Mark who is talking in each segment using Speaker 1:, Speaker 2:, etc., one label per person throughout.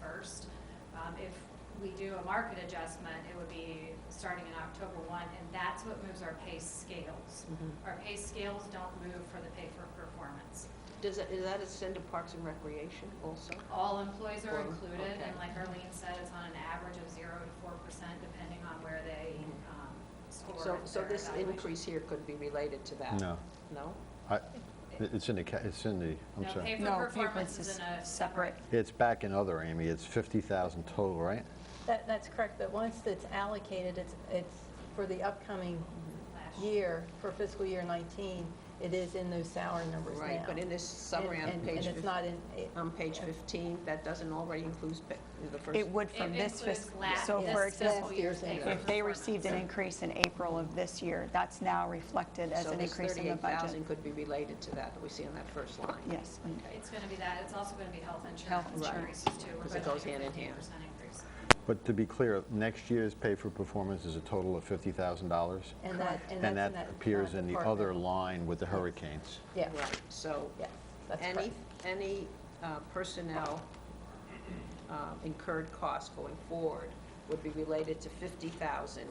Speaker 1: first. Um, if we do a market adjustment, it would be starting in October one, and that's what moves our pay scales.
Speaker 2: Mm-hmm.
Speaker 1: Our pay scales don't move for the pay for performance.
Speaker 3: Does that, is that extend to Parks and Recreation also?
Speaker 1: All employees are
Speaker 3: Well,
Speaker 1: included, and
Speaker 3: okay.
Speaker 1: like Arlene said, it's on an average of zero to four percent, depending on where they,
Speaker 3: Mhm.
Speaker 1: um, score
Speaker 3: So,
Speaker 1: in
Speaker 3: so
Speaker 1: their
Speaker 3: this
Speaker 1: evaluation.
Speaker 3: increase here could be related to that?
Speaker 4: No.
Speaker 3: No?
Speaker 4: I- it- It's in the, ca- it's in the, I'm
Speaker 1: No, pay
Speaker 4: sorry.
Speaker 1: for
Speaker 2: No,
Speaker 1: performance
Speaker 2: paper's
Speaker 1: is in a.
Speaker 2: is separate.
Speaker 4: It's back in other, Amy, it's 50,000 total, right?
Speaker 5: That, that's correct, but once it's allocated, it's, it's for the upcoming
Speaker 1: Last
Speaker 5: year, for fiscal year 19, it is in those salary numbers now.
Speaker 3: Right, but in this summary on
Speaker 5: And- and-
Speaker 3: page,
Speaker 5: And it's
Speaker 3: fif- Oh,
Speaker 5: not in, it-
Speaker 3: on page 15, that doesn't already include pa- the first?
Speaker 2: It would from
Speaker 1: It
Speaker 2: this
Speaker 1: includes
Speaker 2: fiscal,
Speaker 1: la-
Speaker 2: so
Speaker 1: this
Speaker 2: for
Speaker 1: fiscal
Speaker 2: example,
Speaker 1: year's
Speaker 5: Last
Speaker 1: pay
Speaker 5: year's
Speaker 1: for
Speaker 2: if they received an
Speaker 1: performance.
Speaker 2: increase in April of this year, that's now reflected as
Speaker 3: so
Speaker 2: an
Speaker 3: this
Speaker 2: increase in the budget.
Speaker 3: 38,000 could be related to that, that we see on that first line?
Speaker 2: Yes, and
Speaker 1: It's gonna be that, it's also gonna be health
Speaker 2: Health
Speaker 1: insurance
Speaker 2: insurance.
Speaker 1: increases too. We're
Speaker 3: Because it
Speaker 1: budgeting
Speaker 3: goes hand in
Speaker 1: a
Speaker 3: hand.
Speaker 1: 15% increase.
Speaker 4: But to be clear, next year's pay for performance is a total of $50,000?
Speaker 5: and that, and that's in that.
Speaker 4: And that appears
Speaker 5: uh,
Speaker 4: in the other
Speaker 5: department.
Speaker 4: line with the hurricanes.
Speaker 5: Yeah,
Speaker 3: Right, so
Speaker 5: yes, that's correct.
Speaker 3: any, any uh, personnel um, incurred costs going forward would be related to 50,000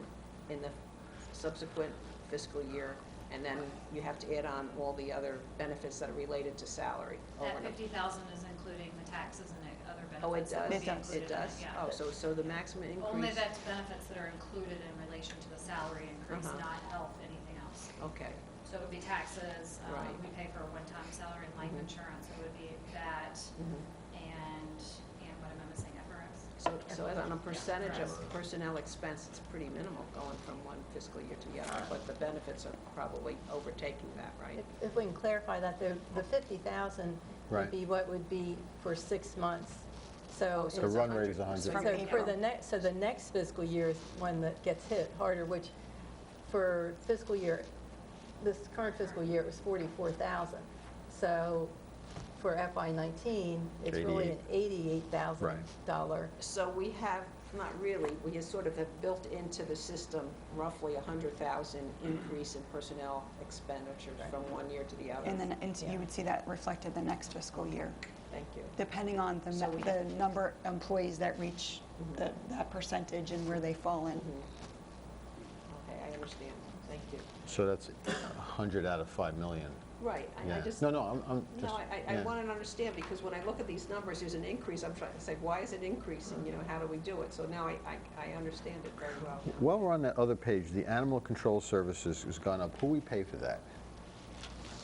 Speaker 3: in the subsequent fiscal year, and then you have to add on all the other benefits that are related to salary. over
Speaker 1: That
Speaker 3: and above.
Speaker 1: fifty thousand is including the taxes and the other
Speaker 3: Oh, it
Speaker 1: benefits. that
Speaker 3: does?
Speaker 1: would be
Speaker 2: does.
Speaker 1: included
Speaker 3: It
Speaker 1: in
Speaker 3: does?
Speaker 1: yeah.
Speaker 3: Oh, so, so the maximum increase?
Speaker 1: Only that's benefits that are included in relation to the salary increase,
Speaker 3: Uh-huh.
Speaker 1: not health, anything else.
Speaker 3: Okay,
Speaker 1: So it would be taxes, um,
Speaker 3: Right.
Speaker 1: we pay for a one-time salary and life
Speaker 3: Mhm.
Speaker 1: insurance, it would be that,
Speaker 3: Mm-hmm.
Speaker 1: and, and what am I missing, FRS?
Speaker 3: so, so as on a percentage of personnel expense, it's pretty minimal going from one fiscal year to the other, but the benefits are probably overtaking that, right?
Speaker 5: If- If we can clarify that, the, the 50,000
Speaker 4: Right.
Speaker 5: would be what would be for six months. So
Speaker 3: Oh, so
Speaker 4: The
Speaker 5: it's-
Speaker 3: it's
Speaker 4: run rate is
Speaker 3: 100%.
Speaker 2: from
Speaker 5: So for
Speaker 2: April.
Speaker 5: the next, so the next fiscal year is one that gets hit harder, which for fiscal year, this current fiscal year, it was 44,000. So for FY '19, it's really an $88,000.
Speaker 3: So we have, not really, we just sort of have built into the system roughly a hundred thousand increase in personnel expenditures from one year to the other.
Speaker 2: then, and so
Speaker 5: Yeah.
Speaker 2: you would see that reflected the next fiscal year,
Speaker 3: Thank you.
Speaker 2: depending on the,
Speaker 3: So
Speaker 2: nu-
Speaker 3: we- Mm-hmm.
Speaker 2: the number of employees that reach the- that percentage and where they fall in.
Speaker 3: Okay, I understand, thank you.
Speaker 4: So that's 100 out of 5 million.
Speaker 3: Right, I- I
Speaker 4: Yeah.
Speaker 3: just.
Speaker 4: No, no, I'm- I'm just.
Speaker 3: No, I- I, I
Speaker 4: yeah.
Speaker 3: want to understand, because when I look at these numbers, there's an increase, I'm trying to say, why is it increasing, you know, how do we do it? So now I, I, I understand it very well. now.
Speaker 4: While we're on that other page, the animal control services has gone up. Who we pay for that?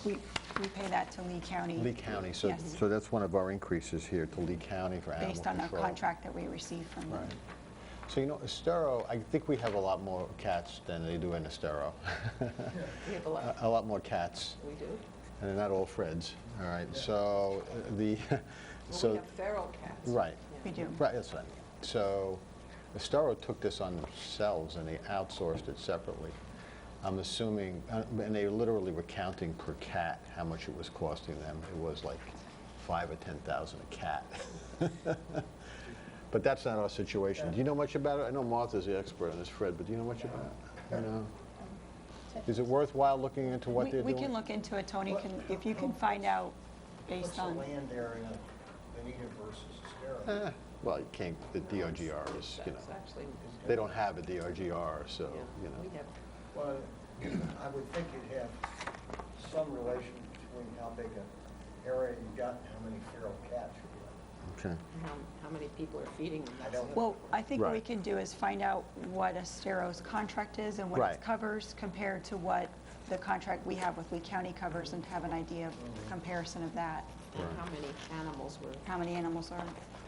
Speaker 3: Mm-hmm.
Speaker 2: We, we pay that to Lee County.
Speaker 4: Lee County. So,
Speaker 2: Yes.
Speaker 4: so that's one of our increases here to Lee County for animal
Speaker 2: Based on our
Speaker 4: control.
Speaker 2: contract that we receive from them.
Speaker 4: Right. So, you know, Estero, I think we have a lot more cats than they do in Estero.
Speaker 3: We have a lot,
Speaker 4: a lot more cats,
Speaker 3: we do.
Speaker 4: and they're not all Freds. All right. So uh, the
Speaker 3: Well,
Speaker 4: so
Speaker 3: we have feral cats.
Speaker 4: right,
Speaker 2: We do.
Speaker 4: right. That's right. So Estero took this on themselves and they outsourced it separately. I'm assuming, uh, and they literally were counting per cat how much it was costing them. It was like five or ten thousand a cat. But that's not our situation. Do you know much about it? I know Martha's the expert on this, Fred, but do you know much about it? No. Is it worthwhile looking into what
Speaker 2: We-
Speaker 4: they're
Speaker 2: We
Speaker 4: doing?
Speaker 2: can look into it, Tony, can- if you can find out based on.
Speaker 6: What's the land area in Benita versus Estero?
Speaker 4: Eh, Well, you can't, the DRGR is, you know,
Speaker 3: That's actually,
Speaker 4: they don't have a DRGR, so,
Speaker 3: yeah, we
Speaker 4: you know.
Speaker 3: have,
Speaker 6: Well, I would think you'd have some relation between how big an area you got and how many feral cats you
Speaker 4: Okay.
Speaker 3: how, how many people are feeding them?
Speaker 6: I don't-
Speaker 2: Well, I think what we
Speaker 4: Right.
Speaker 2: can do is find out what Estero's contract is and what
Speaker 4: Right.
Speaker 2: it covers compared to what the contract we have with Lee County covers and have an idea of comparison of that,
Speaker 3: And how many animals were
Speaker 2: how many animals are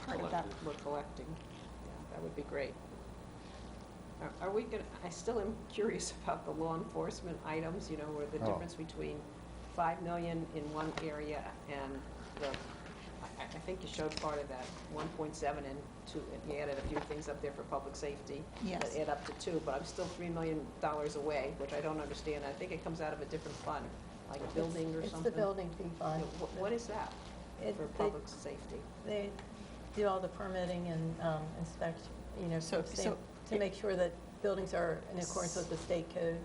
Speaker 2: part of that.
Speaker 3: collected, we're collecting. Yeah, That would be great. Are- Are we going, to I still am curious about the law enforcement items, you know, where the
Speaker 4: Oh.
Speaker 3: difference between 5 million in one area and the, I- I I think you showed part of that, 1.7 and 2, and you added a few things up there for public safety.
Speaker 2: Yes.
Speaker 3: That add up to 2, but I'm still $3 million away, which I don't understand. I think it comes out of a different fund, like building or
Speaker 5: It's-
Speaker 3: something.
Speaker 5: It's the building fee
Speaker 3: Yeah,
Speaker 5: fund.
Speaker 3: wh- What is that
Speaker 5: It-
Speaker 3: for
Speaker 5: they-
Speaker 3: public safety?
Speaker 5: They do all the permitting and um, inspection, you know,
Speaker 2: So-
Speaker 5: to stay-
Speaker 2: so-
Speaker 5: to make sure that buildings are in accordance with the state code.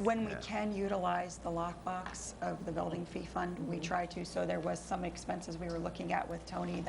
Speaker 2: When we can utilize the
Speaker 6: Mm-hmm.
Speaker 2: lockbox of the building fee fund, we try to, so there was some expenses we were looking at with Tony that